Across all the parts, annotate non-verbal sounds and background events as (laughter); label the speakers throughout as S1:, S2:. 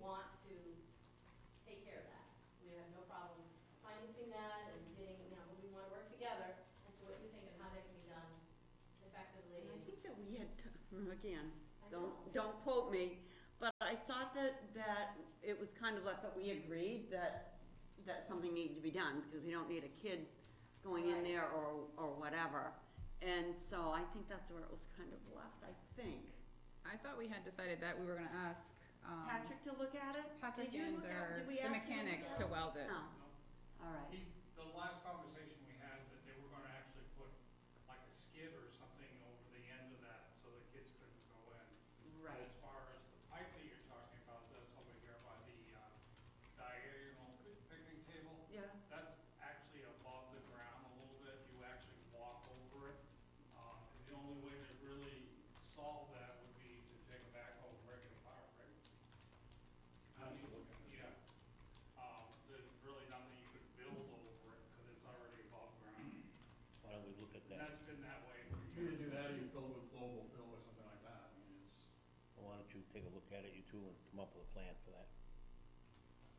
S1: want to take care of that. We have no problem financing that and getting, you know, we want to work together as to what you think and how that can be done effectively.
S2: And I think that we had, t- mm, again,
S1: I know.
S2: don't, don't quote me, but I thought that, that it was kind of left that we agreed that, that something needed to be done, because we don't need a kid going in
S1: Right.
S2: there or, or whatever. And so I think that's where it was kind of left, I think.
S3: I thought we had decided that we were gonna ask, um,
S2: Patrick to look at it?
S3: Patrick
S2: Did you
S3: and
S2: look at- Oh.
S3: or
S2: did we
S3: the
S2: ask you look
S3: mechanic
S2: at
S3: to
S2: it?
S3: weld it.
S2: No,
S4: No.
S2: all right.
S4: He's, the last conversation we had, that they were gonna actually put like a skid or something over the end of that, so the kids couldn't go in.
S2: Right.
S4: As far as the pipe that you're talking about, that's over here by the, uh, diagonal picnic table.
S2: Yeah.
S4: That's actually above the ground a little bit, you actually walk over it. Um, and the only way to really solve that would be to take a backhoe and break it apart, right? I mean, yeah, um, there's really nothing you could build over it, cause it's already above ground.
S5: Why don't we look at
S4: And
S5: that?
S4: that's been that way for
S6: You either
S4: years.
S6: do that or you fill it with global fill or something like that, I mean, it's.
S5: Why don't you take a look at it, you two, and come up with a plan for that?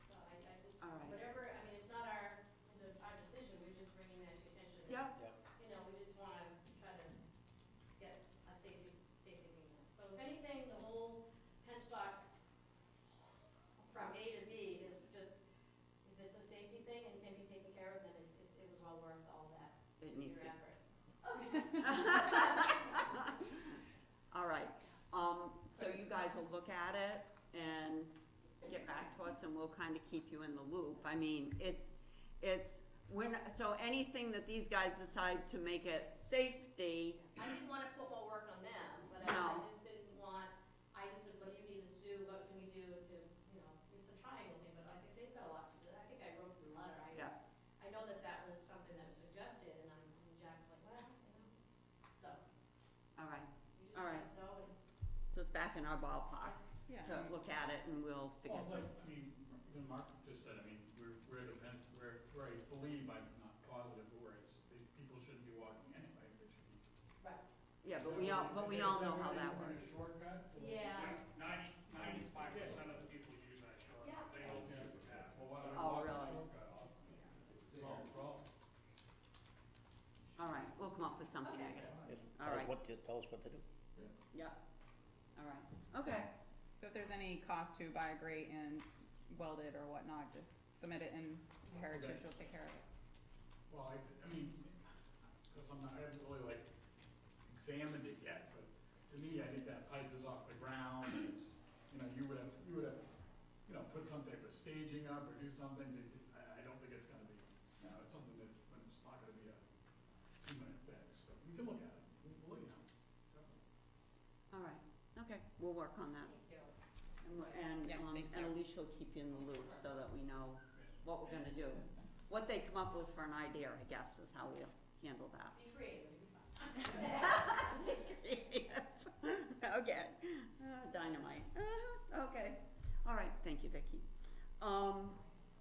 S1: So I, I just,
S2: All right.
S1: whatever, I mean, it's not our, the- our decision, we're just bringing that to your attention. that,
S2: Yep.
S5: Yep.
S1: You know, we just want to try to get a safety, safety meeting. So if anything, the whole penstock from A to B is just, if it's a safety thing and can be taken care of, then it's, it's, it was well worth all that,
S2: It needs
S1: your
S2: to.
S1: effort.
S2: (laughs) All right, um, so you guys will look at it and get back to us and we'll kind of keep you in the loop. I mean, it's, it's, we're not, so anything that these guys decide to make it safety,
S1: I didn't want to put more work on them, but I, I
S2: No.
S1: just didn't want, I just said, what do you need us to do, what can we do to, you know, it's a triangle thing, but I think they've got a lot to do. I think I wrote the letter, I,
S2: Yeah.
S1: I know that that was something that was suggested, and I'm, and Jack's like, well, you know, so,
S2: all right.
S1: you just
S2: All
S1: let
S2: right.
S1: us know, and,
S2: So it's back in our ballpark
S3: Yeah.
S2: to look at it and we'll figure
S6: Well,
S2: something.
S6: like, I mean, even Mark just said, I mean, we're, we're at a fence, where, where I believe, I'm not positive, but where it's, the people shouldn't be walking anyway, they should be.
S1: right,
S2: Yeah, but we all, but we all know how that works.
S6: Is it a shortcut?
S1: yeah,
S4: Ninety, ninety-five percent of the people use that shortcut, they don't use the path.
S6: Well, why don't I
S2: Oh,
S6: walk the
S2: really?
S6: shortcut off? Solve the problem.
S2: All right, we'll come up with something, I guess.
S5: Yes.
S2: All
S5: Tell us
S2: right.
S5: what to- Tell us what to do.
S2: Yeah, all right, okay.
S3: So if there's any cost to buy a grate and weld it or whatnot, just submit it and Heritage
S6: Okay.
S3: will take care of it.
S6: Well, I, I mean, because I'm not, I haven't really like examined it yet, but to me, I think that pipe is off the ground, and it's, you know, you would have, you would have, you know, put some type of staging up or do something, but I, I don't think it's gonna be, you know, it's something that, when it's not gonna be a two-minute fix, but we can look at it, we'll, we'll, look at it.
S2: All right, okay, we'll work on that.
S1: thank you.
S2: And, we're- and,
S3: Yeah,
S2: um,
S3: thank
S2: and
S3: you.
S2: Alicia will keep you in the loop so that we know what we're gonna do. What they come up with for an idea, I guess, is how we'll handle that. (laughs)
S1: Be creative, it'd be fun. (laughs)
S2: Okay, Ah, dynamite, Ah, okay, all right, thank you, Vicky. Um,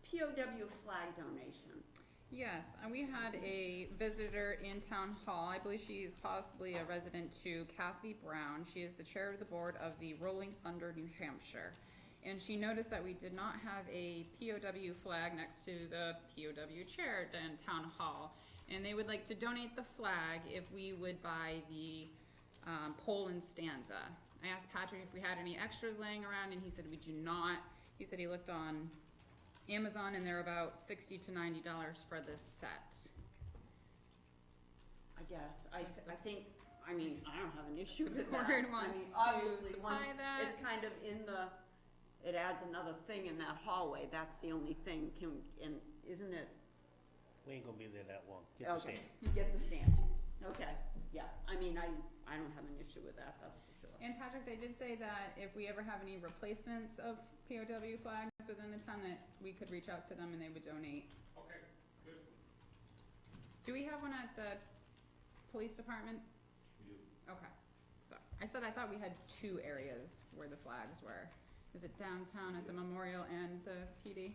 S2: POW flag donation,
S3: Yes, and we had a visitor in town hall. I believe she is possibly a resident to Kathy Brown. She is the chair of the board of the Rolling Thunder New Hampshire. And she noticed that we did not have a POW flag next to the POW chair in town hall. And they would like to donate the flag if we would buy the um, pole and stanza. I asked Patrick if we had any extras laying around, and he said we do not. He said he looked on Amazon, and they're about sixty to ninety dollars for
S2: (laughs)
S3: this set.
S2: I guess, I, I think, I mean, I don't have an issue with that.
S3: Board
S2: I
S3: wants
S2: mean,
S3: to
S2: obviously,
S3: supply
S2: once
S3: that.
S2: It's kind of in the, it adds another thing in that hallway, that's the only thing, can, and, isn't it
S5: We ain't gonna be there that long. Get the
S2: Okay,
S5: sand.
S2: you get the stand. Okay, yeah, I mean, I, I don't have an issue with that, that's for sure.
S3: And Patrick, they did say that if we ever have any replacements of POW flags within the town, that we could reach out to them and they would donate.
S4: Okay, good.
S3: Do we have one at the police department? We do. Okay, so, I said I thought we had two areas where the flags were. Is it downtown at the memorial and the PD?